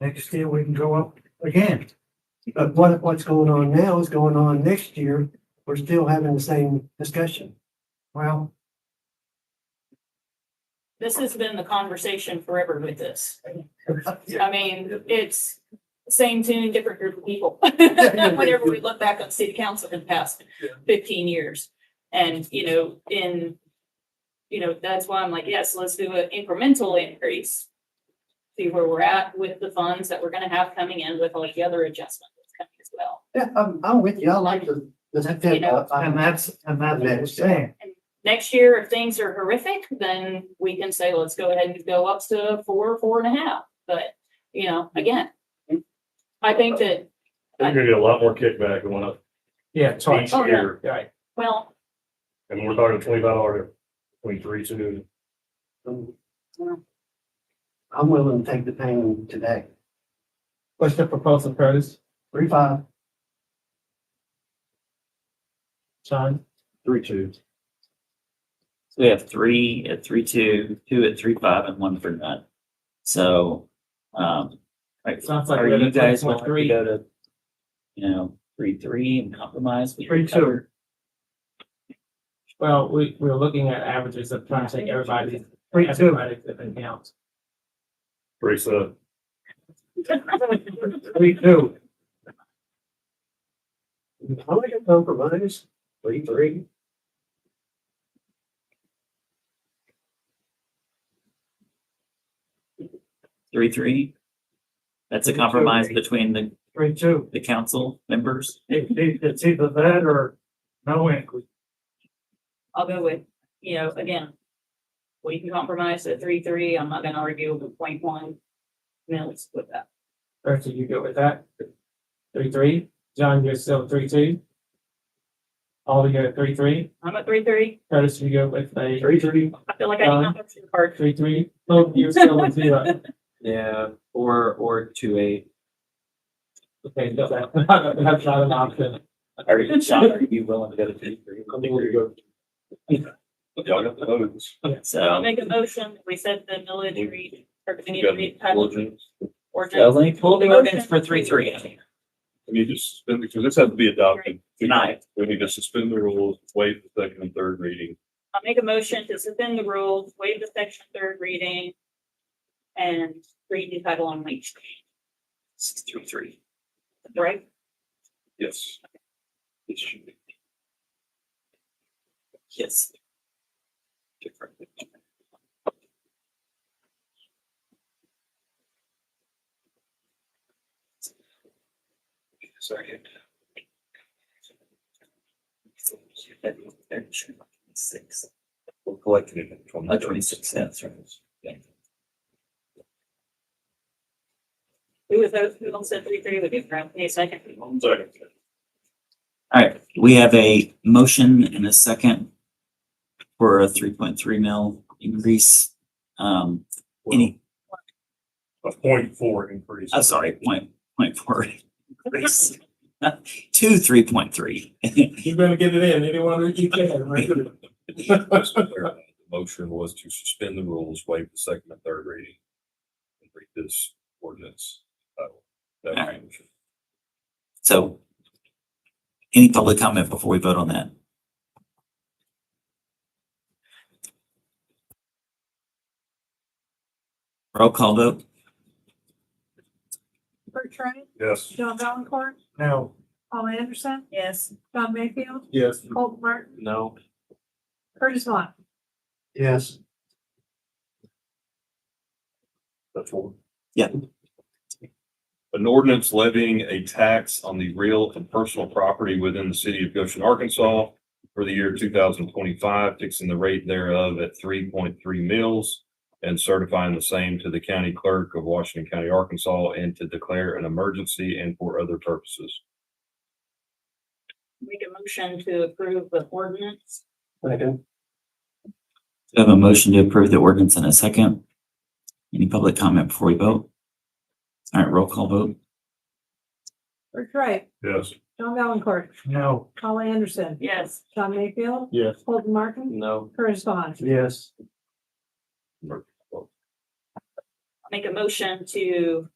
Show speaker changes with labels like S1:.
S1: Next year, we can go up again. But what, what's going on now is going on next year. We're still having the same discussion. Well,
S2: This has been the conversation forever with this.
S1: yeah,
S2: I mean, it's same tune, different group of people. Whenever we look back on city council in the past
S1: Yeah.
S2: fifteen years. And, you know, in, you know, that's why I'm like, yes, let's do an incremental increase. See where we're at with the funds that we're gonna have coming in with all the other adjustments that's coming as well.
S1: I'm, I'm with you. I like the, the,
S2: You know.
S1: and that's, and that's what I'm saying.
S2: Next year, if things are horrific, then we can say, let's go ahead and go up to four, four and a half. But, you know, again, I think that
S3: They're gonna get a lot more kickback going up
S4: Yeah, it's hard.
S3: each
S2: Oh, yeah.
S3: year,
S4: Right.
S2: Well,
S3: and we're talking twenty-five dollar, between three, two.
S1: I'm willing to take the pain today.
S4: What's the proposal, Curtis?
S1: Three, five,
S4: Sean?
S3: Three, two.
S5: So we have three at three two, two at three five, and one for none. So, um, like,
S4: Sounds like
S5: are
S4: we're at a
S5: you guys want to
S4: 3.3.
S5: go to, you know, three three and compromise? We
S4: Three, two.
S5: cover-
S4: Well, we, we're looking at averages of trying to take everybody's,
S1: three, two,
S4: everybody's different counts.
S3: Three, seven.
S1: three, two. I like a compromise, three, three.
S5: Three, three? That's a compromise between the,
S1: Three, two.
S5: the council members?
S1: It, it- it's either that or no increase.
S2: I'll go with, you know, again. We can compromise at three, three. I'm not gonna argue with point one. Now let's put that.
S4: Ursa, you good with that? Three, three? John, you're still three, two? All you're three, three?
S2: I'm at three, three.
S4: Curtis, you go with a
S1: Three, three.
S2: I feel like I need
S4: Done.
S2: to the card.
S4: three, three? Oh, you're still with zero.
S5: Yeah, or, or two eight.
S4: Okay, no, that's not that's not an option.
S5: Are you, Sean, are you willing to go to three three?
S3: Y'all got the votes.
S2: I'll
S5: So,
S2: make a motion. We said the military, or we need to read. title Or
S5: so
S2: just
S5: let me pull the ordinance for three three.
S3: We need to suspend, because this has to be adopted.
S5: Tonight.
S3: We need to suspend the rules, waive the second and third reading.
S2: I'll make a motion to suspend the rules, waive the section third reading. And read the title on each,
S5: Six three three.
S2: right?
S3: Yes. It should be.
S5: Yes. Sorry. Six.
S3: We're collecting it. in
S5: Uh, twenty-six, that's right. Yeah.
S2: Who was those, who all said three, three would be correct? Need a second?
S3: One second.
S5: All right, we have a motion and a second for a three point three mil increase. Um, any,
S3: A point four increase.
S5: I'm Uh, sorry, point, point four increase. Two three point three.
S4: You're gonna get it in, anyone that you can, right?
S3: The Motion was to suspend the rules, waive the second and third reading. And read this ordinance. That was- that was the
S5: Alright.
S3: motion.
S5: So any public comment before we vote on that? Roll call vote?
S6: Bert Train,
S3: Yes.
S6: John Valencourt,
S1: Now,
S6: Paul Anderson,
S2: Yes.
S6: John Mayfield,
S4: Yes.
S6: Colton Martin,
S5: No.
S6: Curtis Vaughn.
S1: yes,
S3: That's one.
S5: Yeah.
S3: An ordinance levying a tax on the real and personal property within the city of Goshen, Arkansas for the year two thousand twenty-five, fixing the rate thereof at three point three mils and certifying the same to the county clerk of Washington County, Arkansas, and to declare an emergency and for other purposes.
S2: Make a motion to approve the ordinance.
S1: second,
S5: I have a motion to approve the ordinance in a second. Any public comment before we vote? All right, roll call vote.
S6: Bert Train,
S3: Yes.
S6: John Valencourt,
S1: no,
S6: Paul Anderson,
S2: Yes.
S6: John Mayfield,
S4: Yes.
S6: Colton Martin,
S5: No.
S6: Curtis Vaughn.
S1: yes,
S2: Make a motion to